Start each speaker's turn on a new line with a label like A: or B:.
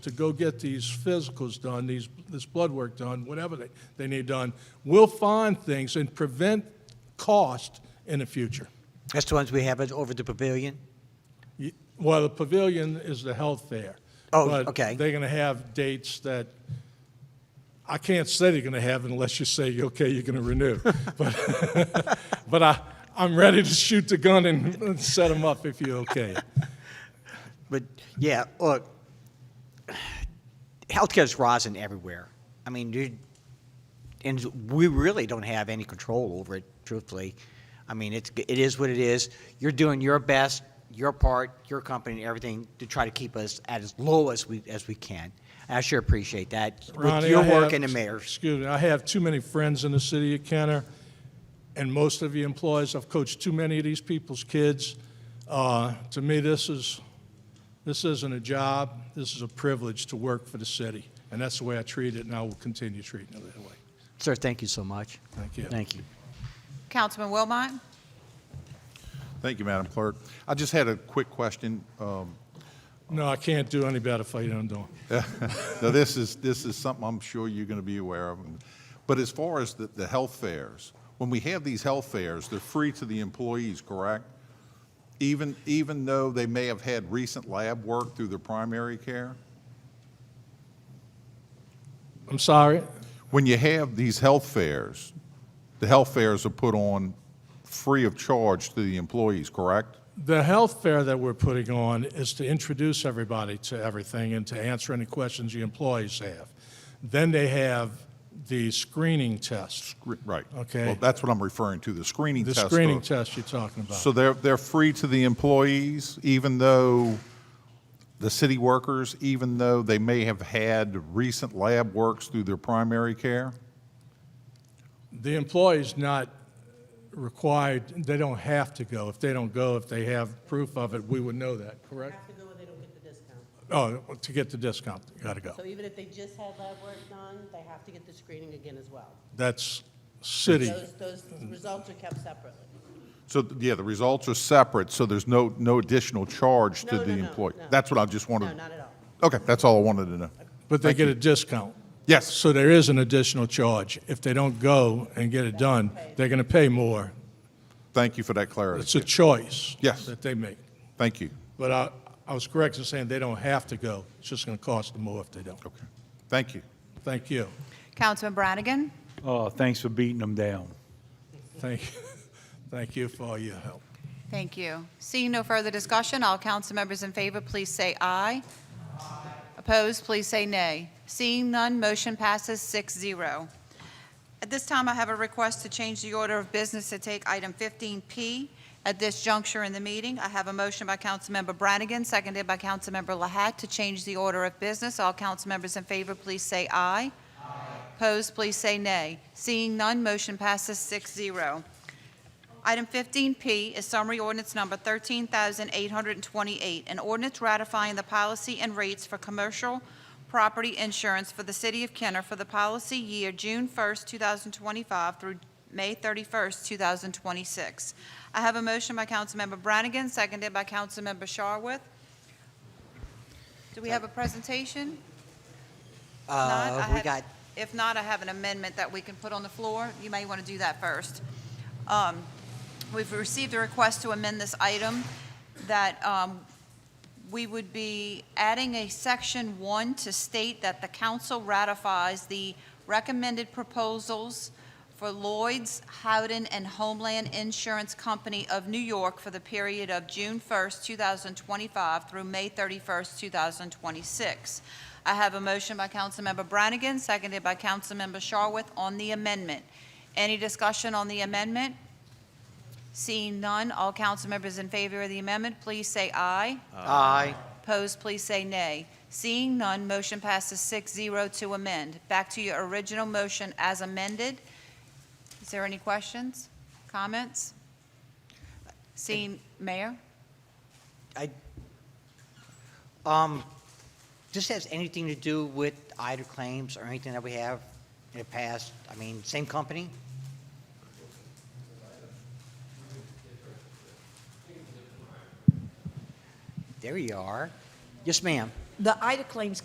A: to go get these physicals done, these, this blood work done, whatever they, they need done, we'll find things and prevent cost in the future.
B: That's the ones we have at- over the pavilion?
A: You- Well, the pavilion is the health fair.
B: Oh,
A: but
B: okay.
A: They're going to have dates that, I can't say they're going to have unless you say, okay, you're going to renew. But, but I, I'm ready to shoot the gun and and set them up if you're okay.
B: But, yeah, look, healthcare's rising everywhere. I mean, dude, and we really don't have any control over it, truthfully. I mean, it's, it is what it is. You're doing your best, your part, your company, and everything to try to keep us at as low as we, as we can. And I sure appreciate that with
A: Ronnie,
B: your
A: I
B: work
A: have-
B: and the mayor's.
A: Excuse me, I have too many friends in the city of Kenner, and most of the employees, I've coached too many of these people's kids. Uh, To me, this is, this isn't a job, this is a privilege to work for the city, and that's the way I treat it, and I will continue treating it that way.
B: Sir, thank you so much.
A: Thank you.
B: Thank you.
C: Councilman Wilmot?
D: Thank you, Madam Clerk. I just had a quick question. Um,
A: No, I can't do any better for you than I'm doing.
D: Now, this is, this is something I'm sure you're going to be aware of. But as far as the, the health fairs, when we have these health fairs, they're free to the employees, correct? Even, even though they may have had recent lab work through their primary care?
A: I'm sorry?
D: When you have these health fairs, the health fairs are put on free of charge to the employees, correct?
A: The health fair that we're putting on is to introduce everybody to everything and to answer any questions the employees have. Then they have the screening test.
D: Right.
A: Okay.
D: Well, that's what I'm referring to, the screening
A: The
D: test. of-
A: screening test you're talking about.
D: So they're, they're free to the employees, even though the city workers, even though they may have had recent lab works through their primary care?
A: The employee's not required, they don't have to go. If they don't go, if they have proof of it, we would know that, correct?
E: have to go and they don't get the discount.
A: Oh, to get the discount, you gotta go.
E: So even if they just had lab work done, they have to get the screening again as well.
A: That's city.
E: Those, those results are kept separately.
D: So, yeah, the results are separate, so there's no, no additional charge to
E: No,
D: the
E: no, no,
D: employee?
E: no.
D: That's what I just wanted.
E: No, not at all.
D: Okay, that's all I wanted to know.
A: But they get a discount.
D: Yes.
A: So there is an additional charge. If they don't go and get it done, they're going to pay more.
D: Thank you for that clarity.
A: It's a choice.
D: Yes.
A: That they make.
D: Thank you.
A: But I, I was correct in saying they don't have to go. It's just going to cost them more if they don't.
D: Okay, thank you.
A: Thank you.
C: Councilman Brannigan?
F: Oh, thanks for beating them down.
A: Thank, thank you for all your help.
C: Thank you. Seeing no further discussion, all council members in favor, please say aye. Opposed, please say nay. Seeing none, motion passes 6-0. At this time, I have a request to change the order of business to take item 15P at this juncture in the meeting. I have a motion by Councilmember Brannigan, seconded by Councilmember Lahat, to change the order of business. All council members in favor, please say aye. Opposed, please say nay. Seeing none, motion passes 6-0. Item 15P is summary ordinance number 13,828, an ordinance ratifying the policy and rates for commercial property insurance for the city of Kenner for the policy year June 1st, 2025 through May 31st, 2026. I have a motion by Councilmember Brannigan, seconded by Councilmember Sharwood. Do we have a presentation? Not, I
B: Uh, we
C: have-
B: got,
C: If not, I have an amendment that we can put on the floor. You may want to do that first. Um, We've received a request to amend this item that um, we would be adding a section one to state that the council ratifies the recommended proposals for Lloyd's, Howden, and Homeland Insurance Company of New York for the period of June 1st, 2025 through May 31st, 2026. I have a motion by Councilmember Brannigan, seconded by Councilmember Sharwood on the amendment. Any discussion on the amendment? Seeing none, all council members in favor of the amendment, please say aye.
B: aye.
C: Opposed, please say nay. Seeing none, motion passes 6-0 to amend. Back to your original motion as amended. Is there any questions, comments? Seeing, Mayor?
B: I, um, this has anything to do with either claims or anything that we have in the past? I mean, same company? There you are. Yes, ma'am.
G: The Ida claims